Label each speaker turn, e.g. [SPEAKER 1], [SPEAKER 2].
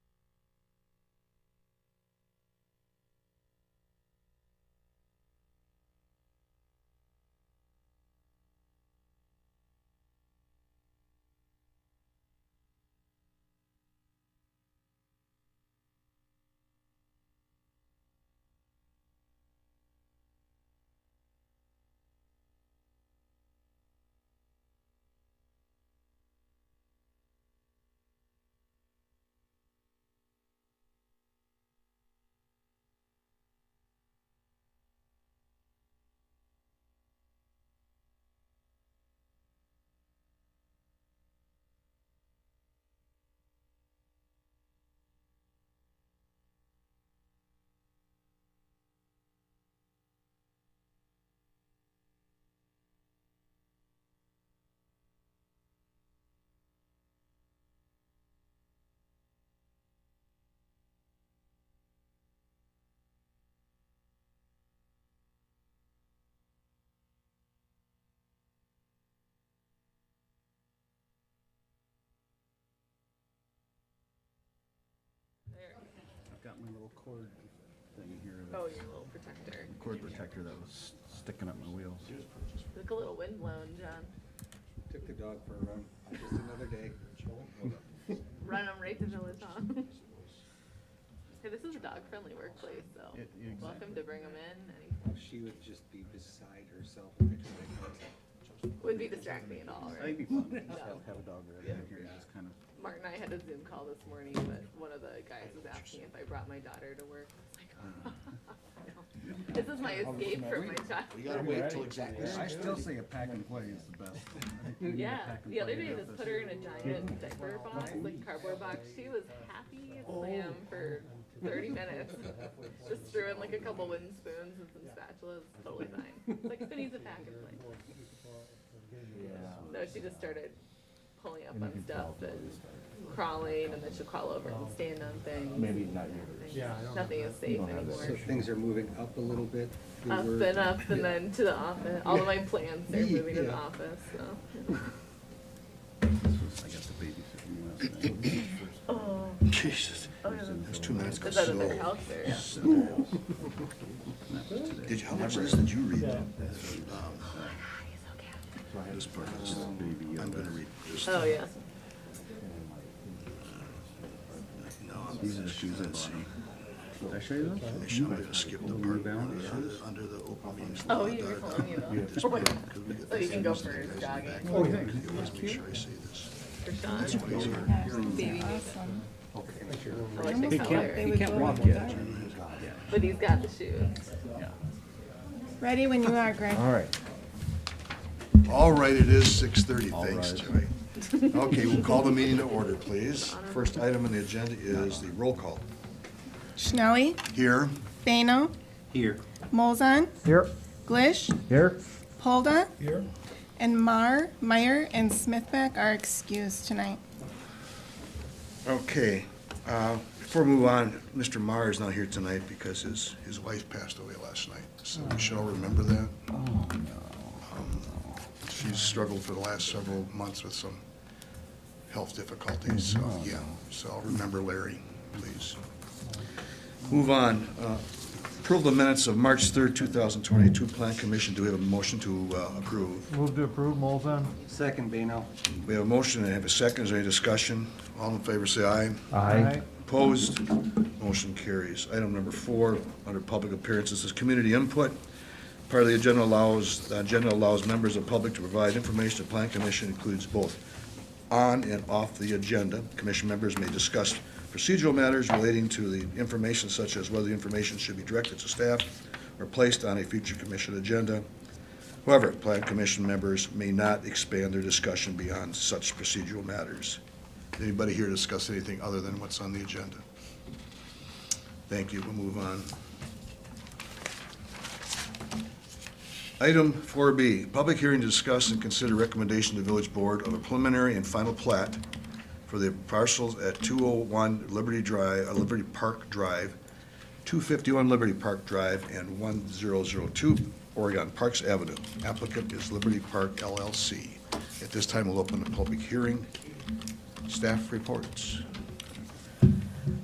[SPEAKER 1] got my little cord thing here. that-
[SPEAKER 2] Oh, your little protector.
[SPEAKER 1] Cord protector that was sticking up my wheels.
[SPEAKER 2] Like a little windblown, John.
[SPEAKER 3] Took the dog for a run, just another day.
[SPEAKER 2] Run them right to Millicom. hey, this is a dog-friendly workplace, so
[SPEAKER 1] Yeah, yeah,
[SPEAKER 2] welcome
[SPEAKER 1] exactly.
[SPEAKER 2] to bring them in. Any-
[SPEAKER 3] She would just be beside herself next to me.
[SPEAKER 2] Wouldn't be distracting at all,
[SPEAKER 1] That'd be
[SPEAKER 2] right?
[SPEAKER 1] fun. Just have have a dog right out here,
[SPEAKER 3] Yeah.
[SPEAKER 1] just kind of.
[SPEAKER 2] Mark and I had a Zoom call this morning, but one of the guys was asking if I brought my daughter to work. I
[SPEAKER 1] Uh-huh.
[SPEAKER 2] was like, no. This is my escape from my
[SPEAKER 4] We
[SPEAKER 2] child.
[SPEAKER 4] gotta wait till exactly
[SPEAKER 1] I
[SPEAKER 4] six
[SPEAKER 1] still
[SPEAKER 4] thirty.
[SPEAKER 1] say a pack and play is the best. I think we need a
[SPEAKER 2] Yeah,
[SPEAKER 1] pack and
[SPEAKER 2] the other
[SPEAKER 1] play
[SPEAKER 2] day,
[SPEAKER 1] in
[SPEAKER 2] just
[SPEAKER 1] this.
[SPEAKER 2] put her in a giant diaper box, like cardboard box. She was happy
[SPEAKER 1] Oh.
[SPEAKER 2] as lamb for thirty minutes. Just threw in like a couple wooden spoons and some spatulas, totally fine. It's Like Finney's a pack and play. No, she just started pulling up on stuff and crawling, and then she'll crawl over and stand on things. Maybe not Yeah, Nothing is safe
[SPEAKER 3] So
[SPEAKER 2] anymore.
[SPEAKER 3] things are moving up a little bit. We
[SPEAKER 2] Up
[SPEAKER 3] were-
[SPEAKER 2] and up, and then to the office. All of my plans are moving to the
[SPEAKER 3] Yeah.
[SPEAKER 2] office, so.
[SPEAKER 1] This was- I got the babysitting last night.
[SPEAKER 2] Oh,
[SPEAKER 4] Jesus, those two minutes go
[SPEAKER 2] is that at their
[SPEAKER 4] slow.
[SPEAKER 2] house or?
[SPEAKER 1] Not today.
[SPEAKER 4] Did you, how much of this did you read? Um, This part is,
[SPEAKER 1] Baby
[SPEAKER 4] I'm gonna
[SPEAKER 1] Yoda.
[SPEAKER 4] read just,
[SPEAKER 2] Oh, yeah.
[SPEAKER 4] no, I'm
[SPEAKER 1] These are
[SPEAKER 4] gonna
[SPEAKER 1] the shoes I bought.
[SPEAKER 4] see.
[SPEAKER 1] Did I show you those?
[SPEAKER 4] Actually, I'm gonna skip the
[SPEAKER 1] New
[SPEAKER 4] part
[SPEAKER 1] Balance
[SPEAKER 4] under,
[SPEAKER 1] shoes?
[SPEAKER 4] under the open meetings.
[SPEAKER 2] Oh,
[SPEAKER 4] law,
[SPEAKER 2] you were
[SPEAKER 4] dot,
[SPEAKER 2] telling me
[SPEAKER 4] dot,
[SPEAKER 2] about
[SPEAKER 4] This part, 'cause we get
[SPEAKER 2] So Oh, you
[SPEAKER 4] this
[SPEAKER 2] can go
[SPEAKER 4] thing,
[SPEAKER 2] for
[SPEAKER 4] guys in the
[SPEAKER 2] jogging.
[SPEAKER 4] back.
[SPEAKER 1] Oh, thanks.
[SPEAKER 4] You always make sure I say this.
[SPEAKER 2] For Sean. Baby Nathan. I like the
[SPEAKER 5] They
[SPEAKER 2] color.
[SPEAKER 5] can't, they can't walk yet.
[SPEAKER 2] But he's got the shoes.
[SPEAKER 5] Ready when you are, Greg.
[SPEAKER 6] All right.
[SPEAKER 4] All right, it is six thirty, thanks,
[SPEAKER 6] rise.
[SPEAKER 4] Joey. Okay, we'll call the meeting to order, please. First item on the agenda is the roll call.
[SPEAKER 5] Schnelly,
[SPEAKER 4] Here,
[SPEAKER 5] Bano. Here. Molzon,
[SPEAKER 6] Here.
[SPEAKER 5] Glish,
[SPEAKER 6] Here.
[SPEAKER 5] Polda. Here. And Mar, Meyer, and Smithback are excused tonight.
[SPEAKER 4] okay, uh, before we move on, Mr. Maher is not here tonight because his, his wife passed away last night, so we shall remember that. Um, She's struggled for the last several months with some health difficulties, so, yeah, so I'll remember Larry, please. Move on, uh, approve the minutes of March third, two thousand twenty-two, Plan Commission, do we have a motion to uh, approve?
[SPEAKER 6] Move to approve, Molzon.
[SPEAKER 3] Second, Bano.
[SPEAKER 4] We have a motion and have a second. Is there any discussion? All in favor, say aye.
[SPEAKER 6] Aye.
[SPEAKER 4] Opposed? Motion carries. Item number four, under public appearances, is community input. Part of the agenda allows, the agenda allows members of public to provide information to Plan Commission includes both on and off the agenda. Commission members may discuss procedural matters relating to the information such as whether the information should be directed to staff or placed on a future commission agenda. However, Plan Commission members may not expand their discussion beyond such procedural matters. Anybody here discuss anything other than what's on the agenda? Thank you, we'll move on. Item 4B, public hearing to discuss and consider recommendation to Village Board of a preliminary and final plat for the parcels at 201 Liberty Drive, uh, Liberty Park Drive, 251 Liberty Park Drive, and 1002 Oregon Parks Avenue. Applicant is Liberty Park LLC. At this time, we'll open the public hearing. Staff reports.